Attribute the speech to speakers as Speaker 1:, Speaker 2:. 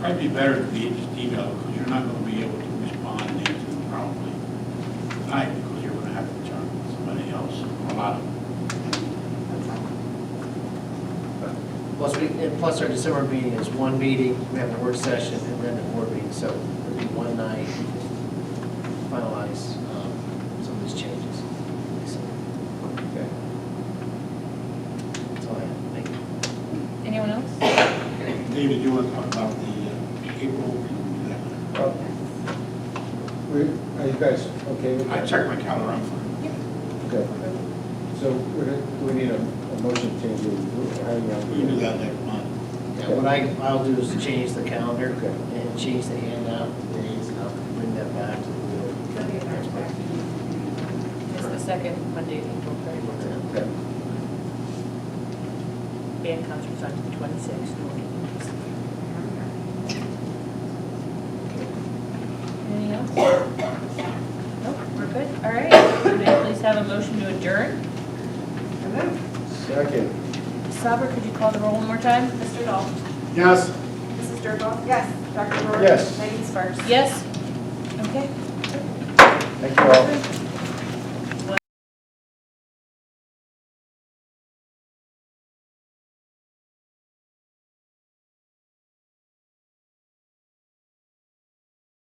Speaker 1: Might be better to be just emailed, because you're not going to be able to respond and answer them promptly tonight, because you're going to have to turn to somebody else, or a lot of them.
Speaker 2: Plus, we, and plus our December meeting is one meeting, we have a work session, and then a board meeting, so it'll be one night to finalize um, some of these changes. So,
Speaker 3: Okay.
Speaker 2: That's all I have, thank you.
Speaker 4: Anyone else?
Speaker 1: David, you want to talk about the uh, April?
Speaker 3: Well, we, are you guys okay with that?
Speaker 1: I checked my calendar, I'm fine.
Speaker 3: Okay. So we're gonna- do we need a, a motion to change the, how you
Speaker 1: We can do that next month.
Speaker 2: Yeah, what I, I'll do is change the calendar
Speaker 3: Okay.
Speaker 2: and change the handout days, and I'll bring that back to the board.
Speaker 4: It's the second Monday in April,
Speaker 2: Thank you, Martina.
Speaker 3: Okay.
Speaker 4: band concerts on the twenty-sixth. Anything else? Nope, we're good, all right. Would I please have a motion to adjourn?
Speaker 3: Second.
Speaker 4: Sabra, could you call the roll one more time?
Speaker 5: Mr. Dahl?
Speaker 1: Yes.
Speaker 5: Mrs. Dernbach? Yes. Dr. Rohr?
Speaker 3: Yes.
Speaker 5: Megan Sparks?
Speaker 4: Yes? Okay.
Speaker 3: Thank you all.